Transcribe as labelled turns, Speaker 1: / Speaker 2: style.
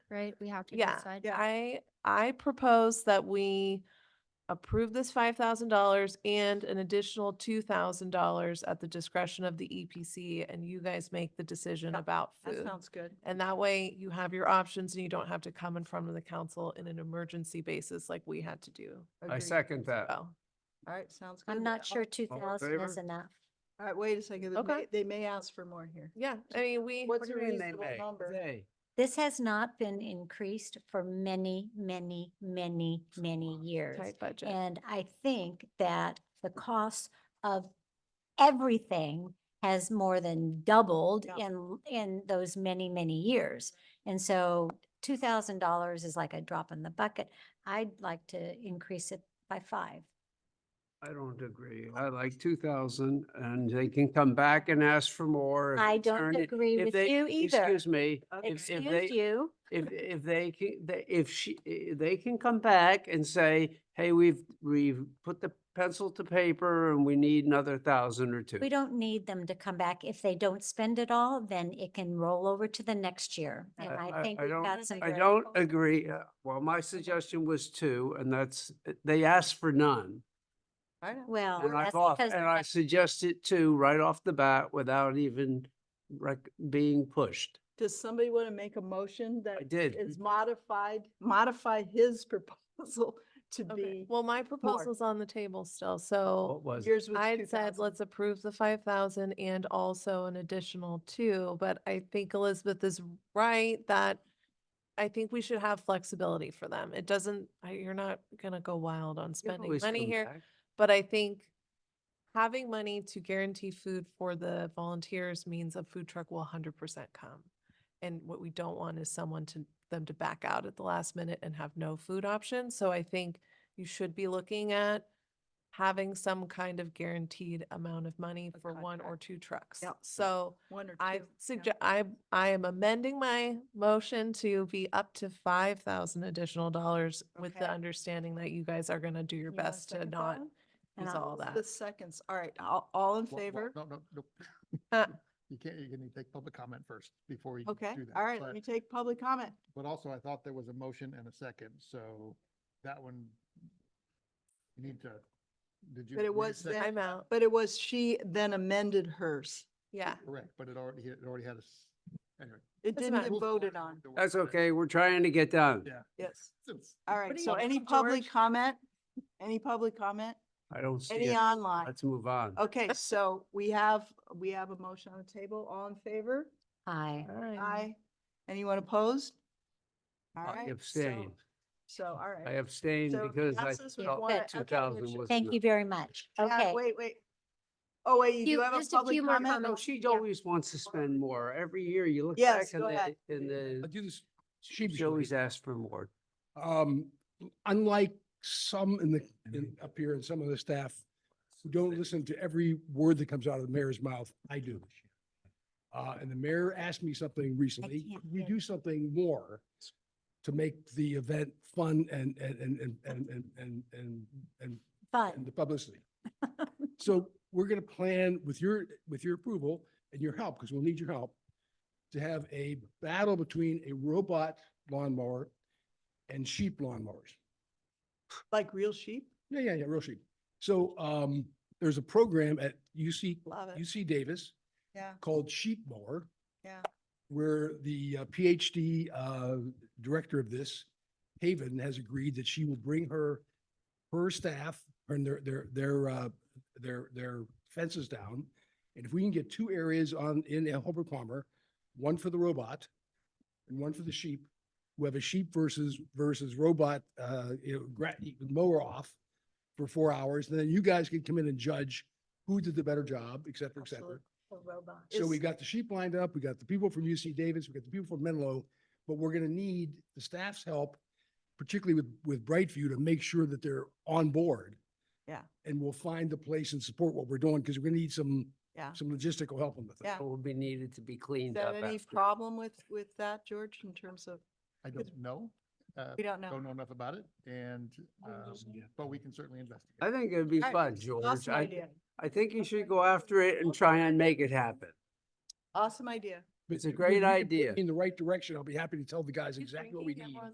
Speaker 1: right? We have to
Speaker 2: Yeah,
Speaker 1: decide.
Speaker 3: Yeah.
Speaker 2: I, I propose that we approve this five thousand dollars and an additional two thousand dollars at the discretion of the EPC and you guys make the decision
Speaker 3: Yeah,
Speaker 2: about
Speaker 3: That
Speaker 2: food.
Speaker 3: sounds good.
Speaker 2: And that way you have your options and you don't have to come in front of the council in an emergency basis like we had to do.
Speaker 4: I
Speaker 3: Agreed.
Speaker 4: second that.
Speaker 2: Well,
Speaker 3: All right, sounds good.
Speaker 1: I'm not sure two
Speaker 4: All in
Speaker 1: thousand is
Speaker 4: favor?
Speaker 1: enough.
Speaker 3: All right, wait a second. They
Speaker 2: Okay.
Speaker 3: may- They may ask for more here.
Speaker 2: yeah, I mean, we,
Speaker 3: What's a reasonable number?
Speaker 1: This has not been increased for many, many, many, many years.
Speaker 2: tight budget.
Speaker 1: And I think that the cost of everything has more than doubled
Speaker 3: Yeah.
Speaker 1: in, in those many, many years. And so two thousand dollars is like a drop in the bucket. I'd like to increase it by five.
Speaker 4: I don't agree. I like two thousand and they can come back and ask for more. if
Speaker 1: I
Speaker 4: it's
Speaker 1: don't
Speaker 4: earned it-
Speaker 1: agree
Speaker 4: if
Speaker 1: with
Speaker 4: they-
Speaker 1: you either.
Speaker 4: Excuse me, if, if
Speaker 1: Excuse
Speaker 4: they,
Speaker 1: you.
Speaker 4: if, if they, ca- they- if she, i- they can come back and say, hey, we've, we've put the pencil to paper and we need another thousand or two.
Speaker 1: We don't need them to come back. If they don't spend it all, then it can roll over to the next year. And
Speaker 4: I-
Speaker 1: I
Speaker 4: I-
Speaker 1: think
Speaker 4: I
Speaker 1: we've
Speaker 4: don't-
Speaker 1: got some.
Speaker 4: I
Speaker 1: very
Speaker 4: don't
Speaker 1: good-
Speaker 4: agree. uh, Well, my suggestion was two and that's, they asked for none.
Speaker 3: I know.
Speaker 1: Well,
Speaker 4: And I
Speaker 1: that's
Speaker 4: thought,
Speaker 1: because.
Speaker 4: and I suggested two right off the bat without even rec- being pushed.
Speaker 3: Does somebody want to make a motion that
Speaker 4: I did.
Speaker 3: is modified, modify his proposal to
Speaker 2: Okay.
Speaker 3: be,
Speaker 2: Well, my proposal's on the table still, so.
Speaker 4: What was it?
Speaker 3: yours was
Speaker 2: I
Speaker 3: two
Speaker 2: had said,
Speaker 3: thousand?
Speaker 2: let's approve the five thousand and also an additional two, but I think Elizabeth is right that I think we should have flexibility for them. It doesn't, I- you're not gonna go wild on
Speaker 4: You
Speaker 2: spending
Speaker 4: always
Speaker 2: money
Speaker 4: come
Speaker 2: here,
Speaker 4: back.
Speaker 2: but I think having money to guarantee food for the volunteers means a food truck will hundred percent come. And what we don't want is someone to, them to back out at the last minute and have no food option. So I think you should be looking at having some kind of guaranteed amount of money
Speaker 3: A
Speaker 2: for one or two trucks.
Speaker 3: Yep.
Speaker 2: So
Speaker 3: One or two.
Speaker 2: I
Speaker 3: yeah.
Speaker 2: suggest, I, I am amending my motion to be up to five thousand additional dollars with the
Speaker 3: Okay.
Speaker 2: understanding that you guys are gonna do your
Speaker 1: You wanna
Speaker 2: best to
Speaker 1: second that
Speaker 2: not
Speaker 1: one? And
Speaker 2: use
Speaker 1: I'll
Speaker 2: all that.
Speaker 3: The seconds. All right, all, all in
Speaker 5: Well, well,
Speaker 3: favor?
Speaker 5: No, no, no.
Speaker 2: Uh,
Speaker 5: You can't, you're gonna take public comment first before you
Speaker 3: Okay,
Speaker 5: can do that.
Speaker 3: all right,
Speaker 5: But-
Speaker 3: let me take public comment.
Speaker 5: But also I thought there was a motion and a second, so that one, you need to, did you?
Speaker 3: But it
Speaker 5: were you
Speaker 3: was
Speaker 5: second?
Speaker 3: that-
Speaker 2: I'm out.
Speaker 3: But it was she then amended hers.
Speaker 2: Yeah.
Speaker 5: Correct, but it already, it already had a, s- anyway.
Speaker 3: It
Speaker 2: Doesn't
Speaker 3: didn't
Speaker 2: matter.
Speaker 3: get voted on.
Speaker 4: That's okay. We're trying to get done.
Speaker 5: Yeah.
Speaker 3: Yes.
Speaker 5: Since-
Speaker 3: All right,
Speaker 2: do you
Speaker 3: so
Speaker 2: think,
Speaker 3: any public
Speaker 2: George?
Speaker 3: comment? Any public comment?
Speaker 4: I don't see
Speaker 3: Any
Speaker 4: it.
Speaker 3: online?
Speaker 4: Let's move on.
Speaker 3: Okay, so we have, we have a motion on the table. All in favor?
Speaker 1: Aye.
Speaker 3: Aye. Anyone opposed? All
Speaker 4: I
Speaker 3: right. so-
Speaker 4: abstain.
Speaker 3: So, all
Speaker 4: I
Speaker 3: right.
Speaker 4: abstain
Speaker 3: So
Speaker 4: because I
Speaker 3: passes with one-
Speaker 4: felt
Speaker 1: okay,
Speaker 4: two thousand
Speaker 3: which-
Speaker 4: was.
Speaker 1: Thank
Speaker 4: enough.
Speaker 1: you very much.
Speaker 3: Uh,
Speaker 1: Okay.
Speaker 3: Wait, wait. Oh, wait, you
Speaker 1: Few-
Speaker 3: do have a
Speaker 1: just a
Speaker 3: public
Speaker 1: few more
Speaker 3: comment?
Speaker 4: No,
Speaker 1: comments.
Speaker 4: she
Speaker 1: Yeah.
Speaker 4: always wants to spend more. Every year you look back
Speaker 3: Yes,
Speaker 4: in
Speaker 3: go
Speaker 4: the,
Speaker 3: ahead.
Speaker 4: in
Speaker 5: I'll
Speaker 4: the,
Speaker 5: do this
Speaker 4: she
Speaker 5: sheepishly.
Speaker 4: always asks for more.
Speaker 6: Um, unlike some in the, in, up here and some of the staff who don't listen to every word that comes out of the mayor's mouth, I do. Uh, and the mayor asked me something recently,
Speaker 1: can't
Speaker 6: could we
Speaker 1: hear.
Speaker 6: do something more to make the event fun and, and, and, and, and, and, and, and, and and
Speaker 1: Fun.
Speaker 6: the publicity. So we're gonna plan with your, with your approval and your help, because we'll need your help, to have a battle between a robot lawnmower and sheep lawnmowers.
Speaker 3: Like real sheep?
Speaker 6: Yeah, yeah, yeah, real sheep. So, um, there's a program at UC,
Speaker 3: Love it.
Speaker 6: UC Davis
Speaker 3: Yeah,
Speaker 6: called Sheep Mower.
Speaker 3: Yeah.
Speaker 6: Where the uh, PhD uh, director of this, Haven, has agreed that she will bring her, her staff and their, their, their, uh, their, their fences down. And if we can get two areas on, in Holbrook Palmer, one for the robot and one for the sheep, we have a sheep versus, versus robot, uh, you know, gra- mower off for four hours. And then you guys can come in and judge who did the better job, et cetera, et cetera.
Speaker 3: absolutely. A robot.
Speaker 6: So we
Speaker 3: Is-
Speaker 6: got the sheep lined up, we got the people from UC Davis, we got the people from Menlo, but we're gonna need the staff's help, particularly with, with Brightview, to make sure that they're on board.
Speaker 3: Yeah.
Speaker 6: And we'll find the place and support what we're doing, because we're gonna need some,
Speaker 3: Yeah.
Speaker 6: some logistical help on the thing.
Speaker 3: Yeah.
Speaker 4: It will be needed to be
Speaker 3: Is
Speaker 4: cleaned up
Speaker 3: that any
Speaker 4: after.
Speaker 3: problem with, with that, George, in terms of,
Speaker 5: I don't know, uh,
Speaker 3: we don't know.
Speaker 5: don't know enough about it and, um, but we can certainly investigate.
Speaker 4: I think it'd be
Speaker 3: All right,
Speaker 4: fun, George.
Speaker 3: Awesome
Speaker 4: I,
Speaker 3: idea.
Speaker 4: I think you should go after it and try and make it happen.
Speaker 3: Awesome idea.
Speaker 6: but
Speaker 4: It's a
Speaker 6: if you-
Speaker 4: great
Speaker 6: if you put
Speaker 4: idea.
Speaker 6: me In the right direction, I'll be happy to tell the guys
Speaker 2: He's
Speaker 6: exactly what we
Speaker 2: bringing
Speaker 6: need.
Speaker 2: everyone